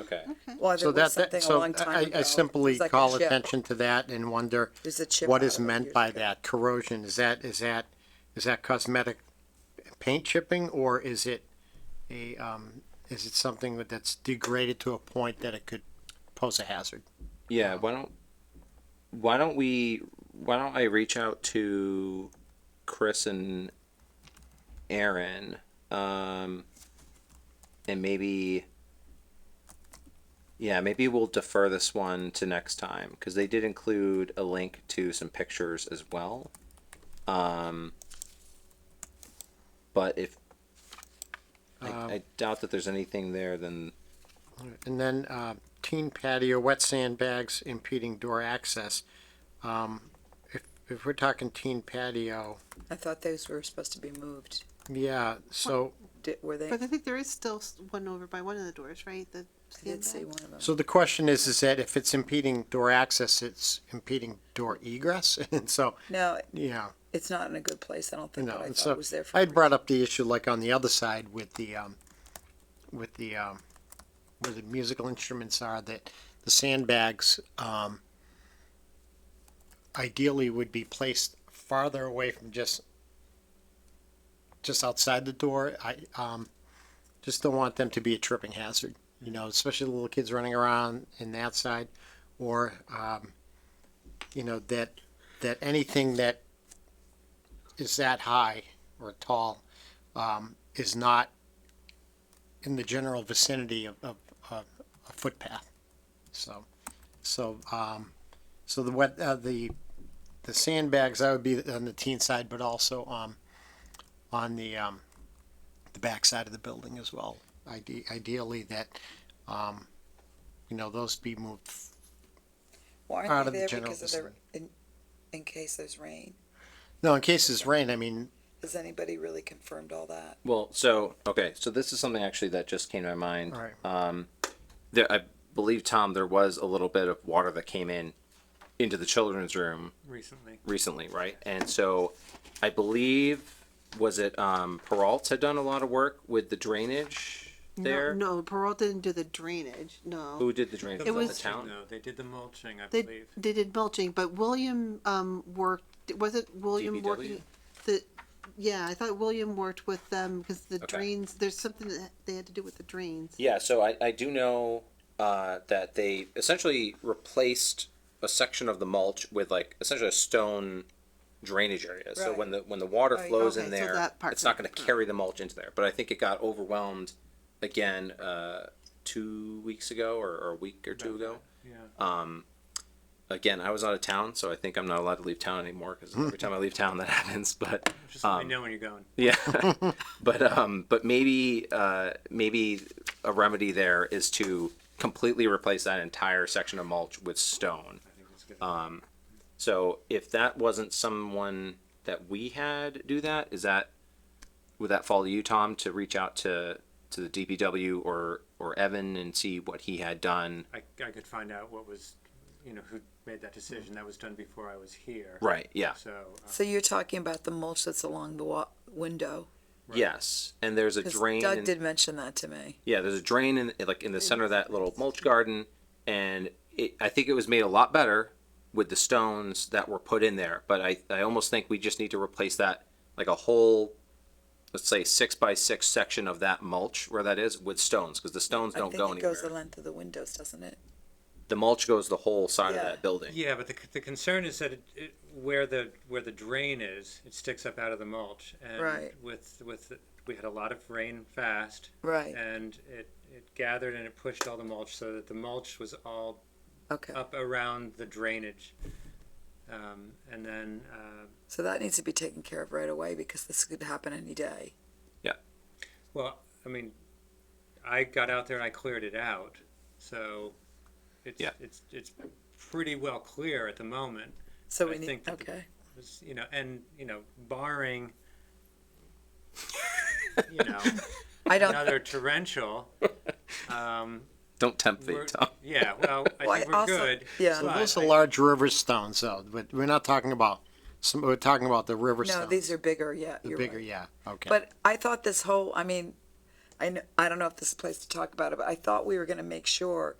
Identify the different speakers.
Speaker 1: Okay.
Speaker 2: Well,
Speaker 3: So
Speaker 2: there
Speaker 3: that,
Speaker 2: was
Speaker 3: that,
Speaker 2: something a
Speaker 3: so
Speaker 2: long time
Speaker 3: I,
Speaker 2: ago.
Speaker 3: I simply
Speaker 2: It's like a
Speaker 3: call
Speaker 2: chip.
Speaker 3: attention to that and wonder
Speaker 2: There's a chip
Speaker 3: what
Speaker 2: out
Speaker 3: is
Speaker 2: of it
Speaker 3: meant
Speaker 2: years
Speaker 3: by
Speaker 2: ago.
Speaker 3: that corrosion. Is that, is that, is that cosmetic paint chipping or is it a, um, is it something that- that's degraded to a point that it could pose a hazard?
Speaker 1: Yeah, why don't why don't we why don't I reach out to Chris and Aaron um and maybe yeah, maybe we'll defer this one to next time because they did include a link to some pictures as well. Um, but if I, I doubt that there's anything there, then
Speaker 3: And then, uh, teen patio, wet sandbags impeding door access. Um, if, if we're talking teen patio,
Speaker 2: I thought those were supposed to be moved.
Speaker 3: yeah, so,
Speaker 2: Did, were they?
Speaker 4: But I think there is still s- one over by one of the doors, right? The
Speaker 2: I did see
Speaker 4: sandbag?
Speaker 2: one of them.
Speaker 3: so the question is, is that if it's impeding door access, it's impeding door egress? And so,
Speaker 2: No,
Speaker 3: yeah,
Speaker 2: it's not in a good place. I don't think.
Speaker 3: No,
Speaker 2: what I
Speaker 3: and
Speaker 2: thought
Speaker 3: so
Speaker 2: was there for.
Speaker 3: I had brought up the issue like on the other side with the, um, with the, um, where the musical instruments are, that the sandbags, um, ideally would be placed farther away from just, just outside the door. I, um, just don't want them to be a tripping hazard, you know, especially the little kids running around in that side or, um, you know, that, that anything that is that high or tall um, is not in the general vicinity of, of, of a footpath. So, so, um, so the wet, uh, the, the sandbags, that would be on the teen side, but also, um, on the, um, the backside of the building as well. Ide- Ideally that, um, you know, those be moved.
Speaker 2: Why
Speaker 3: out
Speaker 2: aren't
Speaker 3: of
Speaker 2: they
Speaker 3: the
Speaker 2: there
Speaker 3: general
Speaker 2: because of the in, in case there's rain?
Speaker 3: No, in case it's rain, I mean,
Speaker 2: Has anybody really confirmed all that?
Speaker 1: Well, so okay, so this is something actually that just came to my mind.
Speaker 3: All right.
Speaker 1: Um, there, I believe Tom, there was a little bit of water that came in into the children's room
Speaker 5: recently.
Speaker 1: recently, right? And so, I believe was it um, Peralt had done a lot of work with the drainage there.
Speaker 4: No, no, Perrault didn't do the drainage. No,
Speaker 1: Who did the drainage?
Speaker 4: It
Speaker 1: Was
Speaker 4: was-
Speaker 1: the town.
Speaker 5: No, they did the mulching, I
Speaker 4: they
Speaker 5: believe.
Speaker 4: they did mulching, but William um worked. Was it William
Speaker 1: DPW?
Speaker 4: working? The yeah, I thought William worked with them because the
Speaker 1: Okay.
Speaker 4: drains. There's something that they had to do with the drains.
Speaker 1: Yeah, so I, I do know uh, that they essentially replaced a section of the mulch with like essentially a stone drainage area. So
Speaker 2: Right.
Speaker 1: when the when the water
Speaker 2: Right.
Speaker 1: flows
Speaker 4: Okay,
Speaker 1: in
Speaker 4: so
Speaker 1: there,
Speaker 4: that part's
Speaker 1: it's not
Speaker 4: not-
Speaker 1: going to carry the mulch into there. But I think it got overwhelmed again uh, two weeks ago or, or a week or two ago.
Speaker 5: Yeah.
Speaker 1: Again, I was out of town, so I think I'm not allowed to leave town anymore because every time I leave town that happens. But
Speaker 5: Just let me know when you're going.
Speaker 1: yeah, but um, but maybe uh, maybe a remedy there is to completely replace that entire section of mulch with stone. Um,
Speaker 5: I think it's good.
Speaker 1: So if that wasn't someone that we had do that, is that would that fall to you, Tom, to reach out to to the DPW or or Evan and see what he had done?
Speaker 5: I, I could find out what was, you know, who made that decision. That was done before I was here.
Speaker 1: Right. Yeah.
Speaker 5: So, uh,
Speaker 2: So you're talking about the mulch that's along the wa- window?
Speaker 1: Yes. And there's a
Speaker 2: 'Cause
Speaker 1: drain.
Speaker 2: Doug
Speaker 1: in-
Speaker 2: did mention that to me.
Speaker 1: Yeah, there's a drain in like in the center of that little mulch garden, and it, I think it was made a lot better with the stones that were put in there. But I, I almost think we just need to replace that like a whole, let's say six by six section of that mulch where that is with stones because the stones
Speaker 2: I
Speaker 1: don't
Speaker 2: think
Speaker 1: go
Speaker 2: it
Speaker 1: anywhere.
Speaker 2: goes the length of the windows, doesn't it?
Speaker 1: the mulch goes the whole side of
Speaker 2: Yeah.
Speaker 1: that building.
Speaker 5: um, yeah, but the, c- the concern is that it, it, where the where the drain is, it sticks up out of the mulch. And
Speaker 2: Right.
Speaker 5: With with we had a lot of rain fast,
Speaker 2: Right.
Speaker 5: and it it gathered and it pushed all the mulch so that the mulch was all
Speaker 2: Okay.
Speaker 5: up around the drainage. Um, and then, uh,
Speaker 2: So that needs to be taken care of right away because this could happen any day.
Speaker 5: well, I mean, I got out there and I cleared it out, so it's
Speaker 1: Yeah.
Speaker 5: it's it's pretty well clear at the moment.
Speaker 2: So
Speaker 5: I
Speaker 2: we need.
Speaker 5: think that the-
Speaker 2: Okay.
Speaker 5: It's, you know, and you know, barring, you know,
Speaker 2: I don't.
Speaker 5: another torrential. Um,
Speaker 1: Don't tempt me,
Speaker 5: we're-
Speaker 1: Tom.
Speaker 5: yeah, well, I
Speaker 2: Well, I
Speaker 5: think we're
Speaker 2: also-
Speaker 5: good.
Speaker 2: yeah.
Speaker 3: so
Speaker 5: but
Speaker 3: those are
Speaker 5: I-
Speaker 3: large river stones though, but we're not talking about, some, we're talking about the river
Speaker 2: No,
Speaker 3: stones.
Speaker 2: these are bigger. Yeah.
Speaker 3: The
Speaker 2: you're
Speaker 3: bigger,
Speaker 2: right.
Speaker 3: yeah, okay.
Speaker 2: But I thought this whole. I mean, I know, I don't know if this is a place to talk about it, but I thought we were gonna make sure